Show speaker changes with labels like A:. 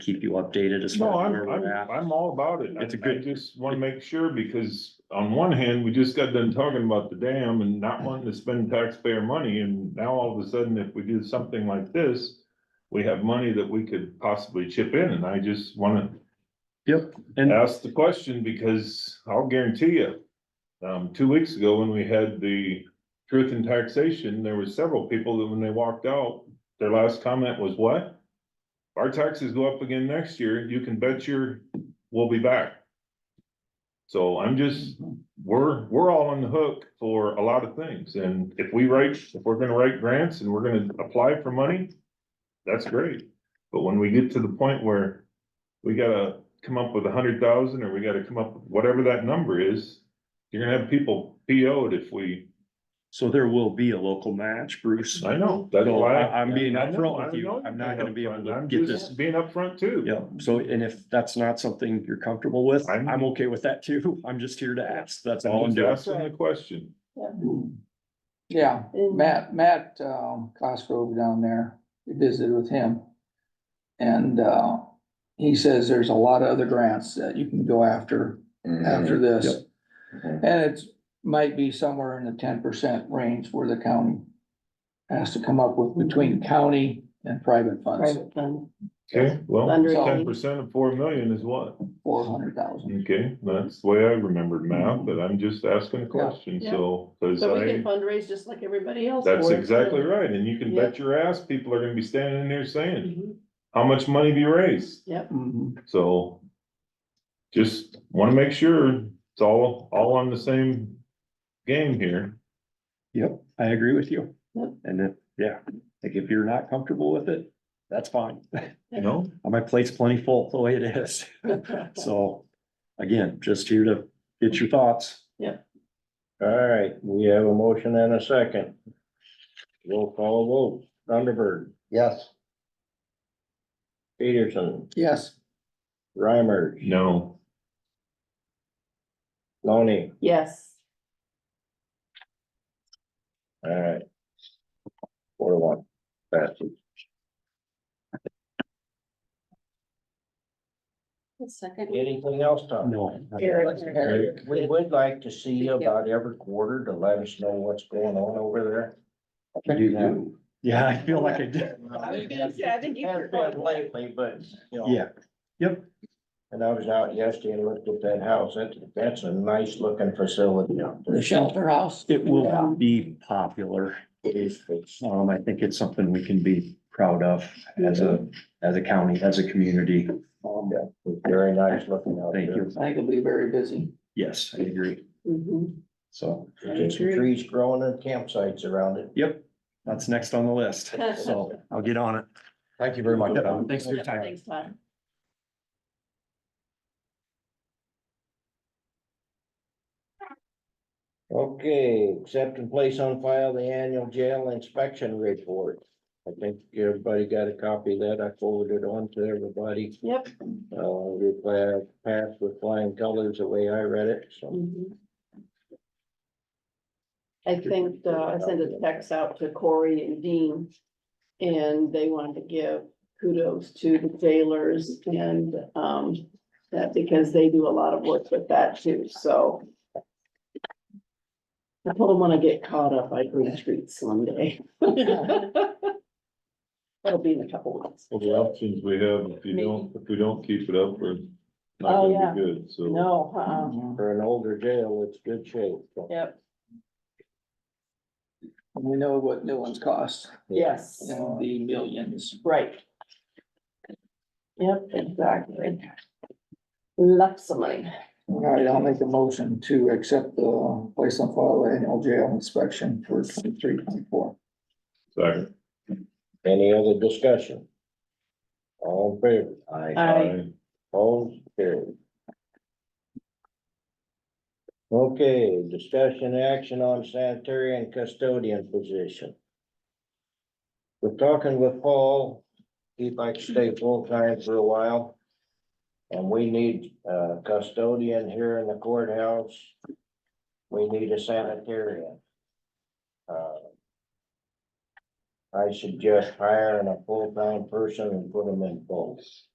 A: keep you updated as
B: No,
A: far as
B: I'm,
A: where we're at.
B: I'm, I'm all about it.
A: It's a
B: I-
A: good-
B: I just wanna make sure, because on one hand, we just got done talking about the dam and not wanting to spend taxpayer money, and now all of a sudden, if we do something like this. We have money that we could possibly chip in, and I just wanna
A: And
B: ask the question, because I'll guarantee you. Um, two weeks ago, when we had the truth in taxation, there were several people that when they walked out, their last comment was what? Our taxes go up again next year, you can bet your, we'll be back. So I'm just, we're, we're all on the hook for a lot of things, and if we write, if we're gonna write grants and we're gonna apply for money. That's great, but when we get to the point where we gotta come up with a hundred thousand, or we gotta come up, with whatever that number is. You're gonna have people PO'd if we,
A: so there will be a local match, Bruce.
B: I know, that's
A: No,
B: why.
A: I- I'm being
B: I know,
A: upfront
B: I
A: with you.
B: know
A: I'm
B: you're
A: not
B: being
A: gonna be able
B: upfront.
A: to
B: I'm
A: get
B: just
A: this-
B: Being upfront too.
A: Yeah, so and if that's not something you're comfortable with,
B: I'm-
A: I'm okay with that too. I'm just here to ask. That's all I'm
B: I'm
A: doing.
B: just asking the question.
C: Yeah,
D: And-
C: Matt, Matt, um, Cosgrove down there, we visited with him. And, uh, he says there's a lot of other grants that you can go after,
A: Mm-hmm.
C: after this.
B: Mhm.
C: And it's, might be somewhere in the ten percent range where the county has to come up with between county and private funds,
D: Private fund.
B: Okay, well,
D: Under
B: ten
D: 80.
B: percent of four million is what?
C: four hundred thousand.
B: Okay, that's the way I remembered math, but I'm just asking a question,
D: Yeah.
B: so, cause
D: So we can
B: I,
D: fundraise just like everybody else.
B: that's
D: for it,
B: exactly
D: so-
B: right, and you can
D: Yeah.
B: bet your ass people are gonna be standing in there saying,
D: Mhm.
B: how much money have you raised?
D: Yep,
A: Mm-hmm.
C: Mhm.
B: So just wanna make sure it's all, all on the same game here.
A: Yep, I agree with you.
D: Yep.
A: And then, yeah, like if you're not comfortable with it, that's fine.
B: You know,
A: My plate's plenty full the way it is. So again, just here to get your thoughts.
E: All right, we have a motion and a second. Roll call vote, Thunderbird. Yes. Peterson,
C: Yes,
E: Reimer,
B: no,
E: Loney,
D: yes.
E: all right. Four to one, passes.
D: Second.
E: Anything else, Tom?
A: No.
E: Eric, We would like to see you about every quarter to let us know what's going on over there.
A: You do. Yeah, I feel like I did.
D: I was gonna say, I think you-
E: Has been lately, but, you know.
A: Yeah, yep,
E: And I was out yesterday and looked at that house. That's, that's a nice looking facility out there.
C: the shelter house.
A: it will be popular.
E: It is fixed.
A: Um, I think it's something we can be proud of as a, as a county, as a community. Um,
E: Yeah, it's very nice looking out
A: Thank
E: there.
A: you.
C: I think it'll be very busy.
A: Yes, I agree.
D: Mhm.
A: So,
E: There's some trees growing and campsites around it.
A: yep, that's next on the list. So I'll get on it. Thank you very much. Thanks for your time.
D: Thanks, Todd.
E: Okay, accept and place on file the annual jail inspection report. I think everybody got a copy of that. I forwarded on to everybody.
D: Yep.
E: Uh, we pla- passed with flying colors the way I read it, so.
D: Mhm. I think, uh, I sent a text out to Corey and Dean. And they wanted to give kudos to the jailers and, um, that because they do a lot of work with that too, so. I told them when I get caught up, I green streets one day. That'll be in a couple weeks.
B: Well, the options we have, if you don't, if we don't keep it up, we're
D: Oh,
B: not
D: yeah.
B: gonna be good, so.
D: No, uh-uh,
C: Um,
E: For an older jail, it's good shape. so.
D: yep,
C: We know what new ones cost,
D: yes,
C: in the millions.
D: right. Yep, exactly. Lots of money.
C: All right, I'll make a motion to accept the place on file annual jail inspection for twenty-three, twenty-four.
B: Sorry.
E: Any other discussion? All in favor?
D: Aye.
E: All carried. Okay, discussion action on sanitary and custodian position. We're talking with Paul, he'd like to stay full-time for a while. And we need a custodian here in the courthouse. We need a sanitarian. Uh, I suggest hiring a full-time person and put them in both.